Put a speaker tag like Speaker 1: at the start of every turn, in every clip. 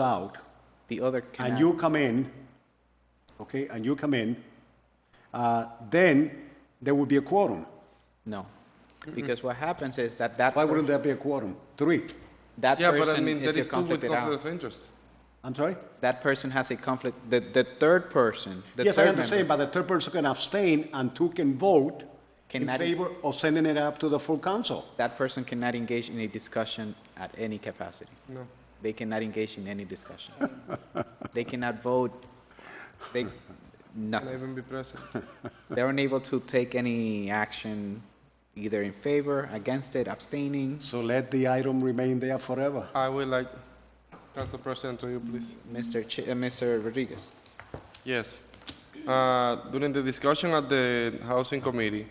Speaker 1: out,
Speaker 2: The other
Speaker 1: and
Speaker 2: canal,
Speaker 1: you come in, okay, and you come in, uh, then there would be a quorum.
Speaker 2: no. Because what happens is that that,
Speaker 1: Mm-hmm. Why
Speaker 2: per-
Speaker 1: wouldn't there be a quorum? Three.
Speaker 2: that
Speaker 3: Yeah, but I
Speaker 2: person
Speaker 3: mean,
Speaker 2: is your
Speaker 3: that is still with
Speaker 2: conflicted
Speaker 3: conflict
Speaker 2: out.
Speaker 3: of interest.
Speaker 1: I'm sorry?
Speaker 2: That person has a conflict, the, the third person, the
Speaker 1: Yes, I
Speaker 2: third
Speaker 1: understand,
Speaker 2: member.
Speaker 1: but the third person can abstain and two can vote in
Speaker 2: Cannot-
Speaker 1: favor of sending it up to the full council.
Speaker 2: That person cannot engage in a discussion at any capacity. No. They cannot engage in any discussion. They cannot vote, they,
Speaker 3: Can I
Speaker 2: nothing.
Speaker 3: even be present?
Speaker 2: They're unable to take any action, either in favor, against it, abstaining.
Speaker 1: So let the item remain there forever.
Speaker 3: I would like, Council President, to you, please.
Speaker 2: Mr. Chi, uh, Mr. Rodriguez.
Speaker 3: Yes. Uh, During the discussion at the Housing Committee,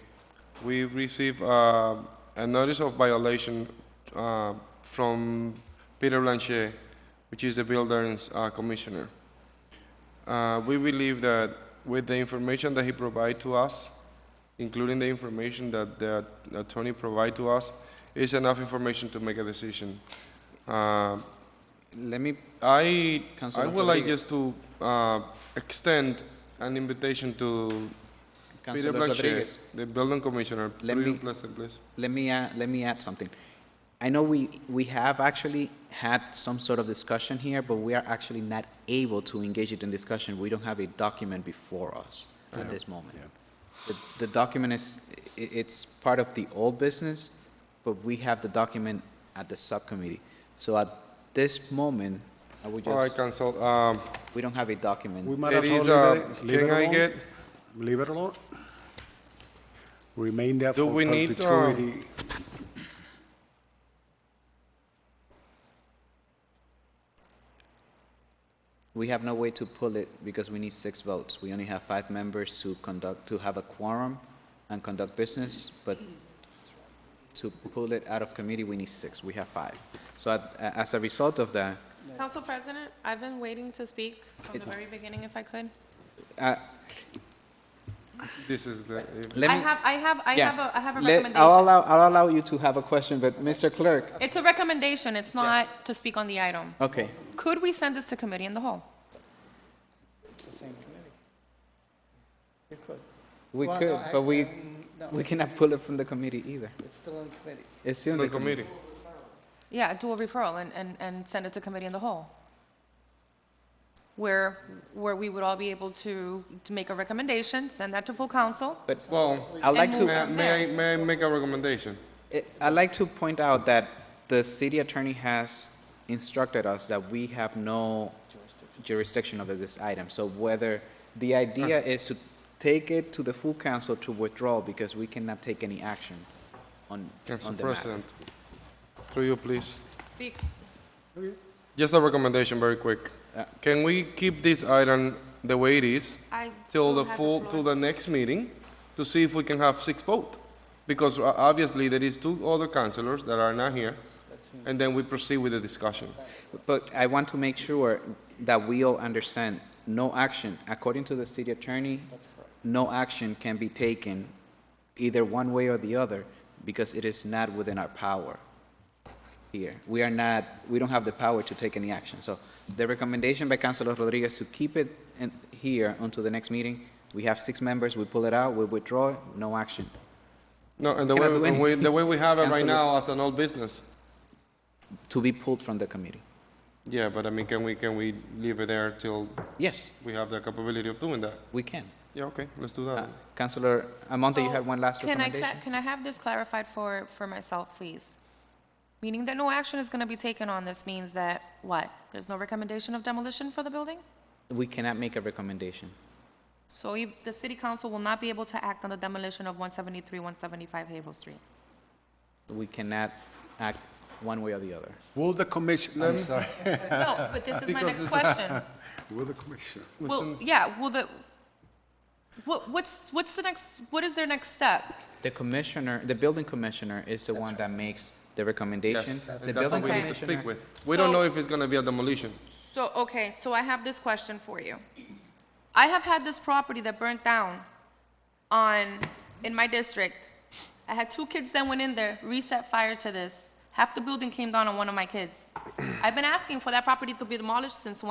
Speaker 3: we received uh, a notice of violation uh, from Peter Blanchet, which is the building's uh, commissioner. Uh, We believe that with the information that he provided to us, including the information that the attorney provided to us, is enough information to make a decision. Uh,
Speaker 2: Let me,
Speaker 3: I, I
Speaker 2: Councilor
Speaker 3: would like
Speaker 2: Rodriguez.
Speaker 3: just to uh, extend an invitation to Peter
Speaker 2: Councilor
Speaker 3: Blanchet,
Speaker 2: Rodriguez.
Speaker 3: the building commissioner.
Speaker 2: Let
Speaker 3: to be
Speaker 2: me-
Speaker 3: present, please.
Speaker 2: Let me, add- let me add something. I know we, we have actually had some sort of discussion here, but we are actually not able to engage it in discussion. We don't have a document before us at this moment. The, the document is, i- it's part of the old business, but we have the document at the subcommittee. So at this moment, I would
Speaker 3: All right,
Speaker 2: just,
Speaker 3: council. Um,
Speaker 2: we don't have a
Speaker 1: We
Speaker 2: document.
Speaker 1: might
Speaker 3: It
Speaker 1: as well
Speaker 3: is,
Speaker 1: leave
Speaker 3: uh,
Speaker 1: it, leave it
Speaker 3: can I
Speaker 1: alone.
Speaker 3: get-
Speaker 1: Leave it alone. Remain there
Speaker 3: Do
Speaker 1: for
Speaker 3: we need, um,
Speaker 1: perpetuity.
Speaker 2: We have no way to pull it because we need six votes. We only have five members to conduct, to have a quorum and conduct business, but to pull it out of committee, we need six. We have five. So at- a- as a result of that,
Speaker 4: Council President, I've been waiting to speak from the very beginning, if I could.
Speaker 2: uh,
Speaker 3: This is the,
Speaker 2: let
Speaker 4: I
Speaker 2: me.
Speaker 4: have, I have, I
Speaker 2: yeah.
Speaker 4: have a, I have a
Speaker 2: Let- I'll
Speaker 4: recommendation.
Speaker 2: allow, I'll allow you to have a question, but Mr. Clerk,
Speaker 4: It's a recommendation, it's not to speak on the item.
Speaker 2: okay.
Speaker 4: Could we send this to committee in the whole?
Speaker 5: It's the same committee. You could.
Speaker 2: We
Speaker 5: Well,
Speaker 2: could,
Speaker 5: no, I-
Speaker 2: but we,
Speaker 5: um, no,
Speaker 2: we cannot pull it from the committee either.
Speaker 5: It's still in committee.
Speaker 2: It's still in
Speaker 3: the
Speaker 2: the committee.
Speaker 3: committee.
Speaker 4: Yeah, do a referral and, and, and send it to committee in the whole. Where, where we would all be able to, to make a recommendation, send that to full council.
Speaker 3: Well,
Speaker 2: I'd like to.
Speaker 4: And move
Speaker 3: may I- may I, may I make a recommendation?
Speaker 2: I- I'd like to point out that the city attorney has instructed us that we have no jurisdiction over this item. So whether, the idea is to take it to the full council to withdraw because we cannot take any action on,
Speaker 3: Council
Speaker 2: on the matter.
Speaker 3: President, through you, please.
Speaker 4: Be-
Speaker 3: Just a recommendation, very quick.
Speaker 2: Uh,
Speaker 3: Can we keep this item the way it is?
Speaker 4: I
Speaker 3: till
Speaker 4: still
Speaker 3: the
Speaker 4: have
Speaker 3: full,
Speaker 4: floor.
Speaker 3: till the next meeting, to see if we can have six vote. Because uh, obviously, there is two other councilors that are not here, and then we proceed with the discussion.
Speaker 2: But I want to make sure that we all understand, no action, according to the city attorney, no action can be taken either one way or the other because it is not within our power here. We are not, we don't have the power to take any action. So the recommendation by Councilor Rodriguez to keep it in, here until the next meeting, we have six members, we pull it out, we withdraw, no action.
Speaker 3: No, and the
Speaker 2: Cannot do
Speaker 3: way, and we- the
Speaker 2: anything.
Speaker 3: way we have it
Speaker 2: Councilor.
Speaker 3: right now as an old business.
Speaker 2: To be pulled from the committee.
Speaker 3: Yeah, but I mean, can we, can we leave it there till
Speaker 2: Yes,
Speaker 3: we have the capability of doing that?
Speaker 2: we can.
Speaker 3: Yeah, okay, let's do
Speaker 2: Uh,
Speaker 3: that.
Speaker 2: Councilor Amonte, you
Speaker 4: So,
Speaker 2: had one last
Speaker 4: can I
Speaker 2: recommendation?
Speaker 4: cla- Can I have this clarified for, for myself, please? Meaning that no action is going to be taken on this means that, what? There's no recommendation of demolition for the building?
Speaker 2: We cannot make a recommendation.
Speaker 4: So you- the city council will not be able to act on the demolition of 173, 175 Havel Street?
Speaker 2: We cannot act one way or the other.
Speaker 1: Will the commission, I'm sorry,
Speaker 4: No, but this is my next question.
Speaker 1: will the commission,
Speaker 4: Well, yeah, well, the, what, what's, what's the next, what is their next step?
Speaker 2: The commissioner, the building commissioner is the one that makes the recommendation.
Speaker 3: Yes,
Speaker 2: The
Speaker 3: and that's
Speaker 2: building
Speaker 3: what we need to
Speaker 2: commissioner-
Speaker 3: speak with. We don't
Speaker 4: So-
Speaker 3: know if it's gonna be a demolition.
Speaker 4: So, okay, so I have this question for you. I have had this property that burnt down on, in my district. I had two kids that went in there, reset fire to this, Half the building came down on one of my kids. I've been asking for that property to be demolished since